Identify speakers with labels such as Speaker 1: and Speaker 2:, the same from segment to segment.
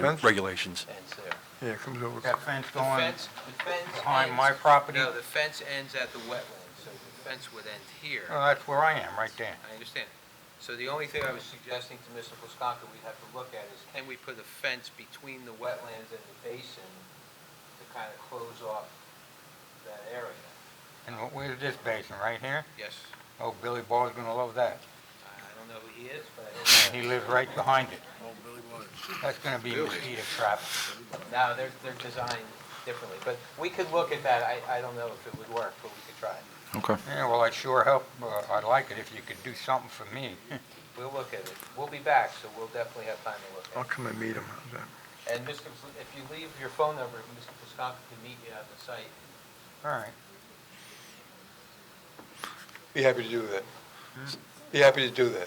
Speaker 1: Fence?
Speaker 2: regulations.
Speaker 3: Ends there.
Speaker 1: Yeah, it comes over.
Speaker 4: That fence
Speaker 3: The
Speaker 4: going
Speaker 3: fence, the fence.
Speaker 4: behind
Speaker 3: ends-
Speaker 4: my property,
Speaker 3: No,
Speaker 4: oh,
Speaker 3: the fence ends at the wetland, so the fence would end here.
Speaker 4: that's where I am, right there.
Speaker 3: I understand. So the only thing I was suggesting to Mr. Plaskakis we'd have to look at is, can we put a fence between the wetlands and the basin to kind of close off that area?
Speaker 4: And wh- where's this basin, right here?
Speaker 3: Yes,
Speaker 4: Oh, Billy Ball's gonna love that.
Speaker 3: I I don't know who he is, but
Speaker 4: And he lives right behind it. That's gonna be mosquito trap.
Speaker 3: No, they're, they're designed differently, but we could look at that. I, I don't know if it would work, but we could try. it.
Speaker 2: Okay.
Speaker 4: Yeah, well, I'd sure help, uh, I'd like it if you could do something for me.
Speaker 3: We'll look at it. We'll be back, so we'll definitely have time to look at it.
Speaker 1: I'll come and meet him. How's that?
Speaker 3: And Mr., Pl- if you leave your phone number, Mr. Piscopo can meet you on the site.
Speaker 4: All right.
Speaker 1: Be happy to do that. Be happy to do
Speaker 3: Write
Speaker 1: that.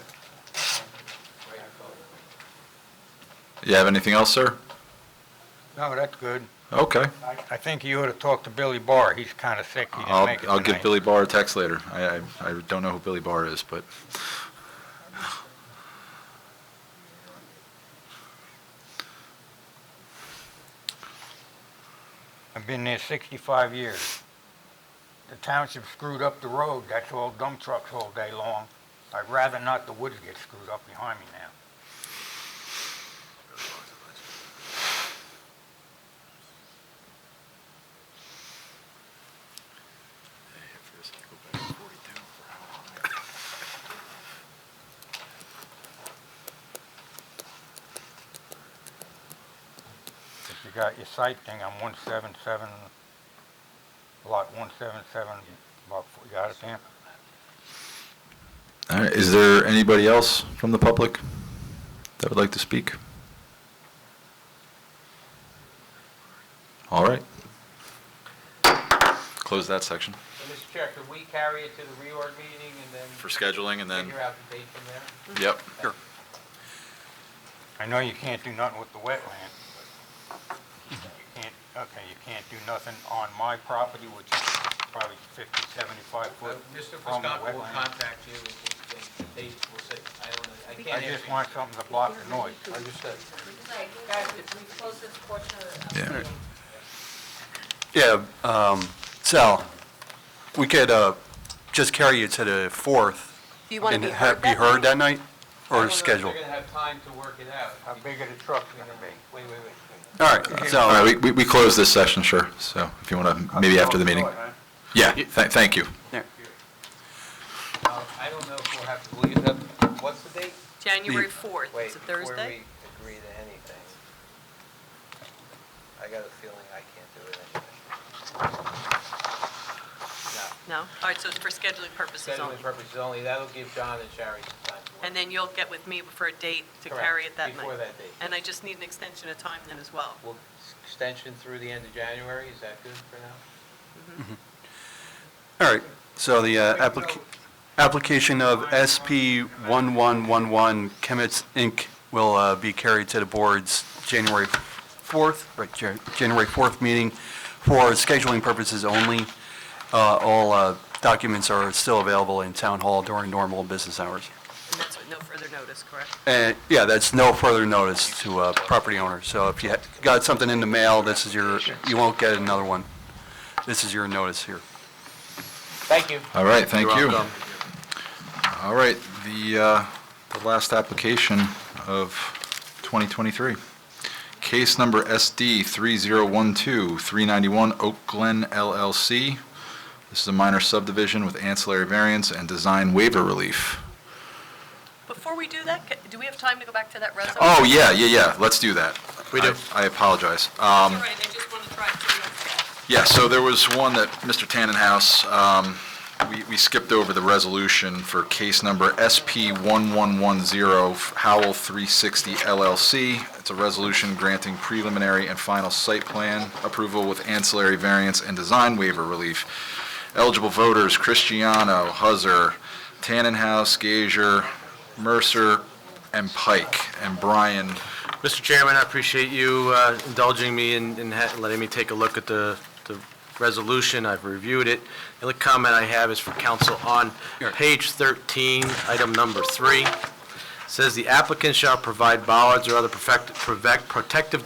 Speaker 3: your phone number.
Speaker 2: You have anything else, sir?
Speaker 4: No, that's good.
Speaker 2: Okay.
Speaker 4: I I think you ought to talk to Billy Barr, he's kinda sick, he didn't
Speaker 2: I'll,
Speaker 4: make it
Speaker 2: I'll give
Speaker 4: tonight.
Speaker 2: Billy Barr a text later. I, I, I don't know who Billy Barr is, but
Speaker 4: I've been there sixty-five years. The township screwed up the road, that's all dump trucks all day long. I'd rather not the woods get screwed up behind me now. If you got your site thing on one seven seven, lot one seven seven, about, four- you got it there?
Speaker 2: All right, is there anybody else from the public that would like to speak? All right. Close that section.
Speaker 3: So, Mr. Chair, could we carry it to the reorg meeting and then
Speaker 2: For scheduling and then,
Speaker 3: figure out the date from there?
Speaker 2: yep.
Speaker 4: I know you can't do nothing with the wetland, but you can't, okay, you can't do nothing on my property, which is probably fifty, seventy-five
Speaker 3: Uh,
Speaker 4: foot
Speaker 3: Mr.
Speaker 4: from the
Speaker 3: Piscopo will
Speaker 4: wetland.
Speaker 3: contact you and the date will say, I don't know, I
Speaker 4: I
Speaker 3: can't
Speaker 4: just
Speaker 3: answer.
Speaker 4: want something to block the noise.
Speaker 3: Understood.
Speaker 5: Like, guys, if we close this portion of the
Speaker 2: Yeah.
Speaker 5: meeting.
Speaker 6: Yeah, um, Sal, we could uh, just carry it to the 4th.
Speaker 5: Do you want to
Speaker 6: and
Speaker 5: be
Speaker 6: ha-
Speaker 5: heard that night?
Speaker 6: that night? Or schedule?
Speaker 3: I don't know if they're going to have time to work it out.
Speaker 4: How big are the trucks gonna be?
Speaker 3: Wait, wait, wait, wait.
Speaker 6: All right,
Speaker 2: All right,
Speaker 6: so,
Speaker 2: we- we, we close this section, sure. So if you want to, maybe after the meeting. Yeah, tha- thank you.
Speaker 3: Now, I don't know if we'll have to leave it up, what's the date?
Speaker 5: January 4th,
Speaker 3: Wait,
Speaker 5: it's a
Speaker 3: before
Speaker 5: Thursday?
Speaker 3: we agree to anything, I got a feeling I can't do it anyway. No,
Speaker 5: No? All right, so it's for scheduling purposes only.
Speaker 3: scheduling purposes only, that'll give John and Sherry some time to work.
Speaker 5: And then you'll get with me for a date to
Speaker 3: Correct,
Speaker 5: carry it that
Speaker 3: Before
Speaker 5: night.
Speaker 3: that date.
Speaker 5: And I just need an extension of time then as well.
Speaker 3: Well, s- extension through the end of January, is that good for now?
Speaker 6: all right, so the uh, applica- application of SP 1111 Chemetz Inc. will uh, be carried to the board's January 4th, right, Jan- January 4th meeting for scheduling purposes only. Uh, All uh, documents are still available in Town Hall during normal business hours.
Speaker 5: And that's with no further notice, correct?
Speaker 6: And, yeah, that's no further notice to uh, property owners. So if you ha- got something in the mail, this is your, you won't get another one. This is your notice here.
Speaker 3: Thank you.
Speaker 2: All right, thank
Speaker 6: You're
Speaker 2: you.
Speaker 6: welcome.
Speaker 2: All right, the, uh, the last application of 2023. Case number SD 3012-391 Oak Glen LLC. This is a minor subdivision with ancillary variance and design waiver relief.
Speaker 5: Before we do that, ca- do we have time to go back to that resume?
Speaker 2: Oh, yeah, yeah, yeah, let's do that. We do. I apologize.
Speaker 5: All right, I just want to try to...
Speaker 2: Yeah, so there was one that Mr. Tannenhouse, um, we- we skipped over the resolution for case number SP1110 Howell 360 LLC. It's a resolution granting preliminary and final site plan approval with ancillary variance and design waiver relief. Eligible voters Cristiano, Huzzer, Tannenhouse, Gager, Mercer, and Pike. And Brian
Speaker 7: Mr. Chairman, I appreciate you uh, indulging me and and ha- letting me take a look at the the resolution. I've reviewed it. The only comment I have is for council on page 13, item number three. Says the applicant shall provide bollards or other perfect- perfect- protective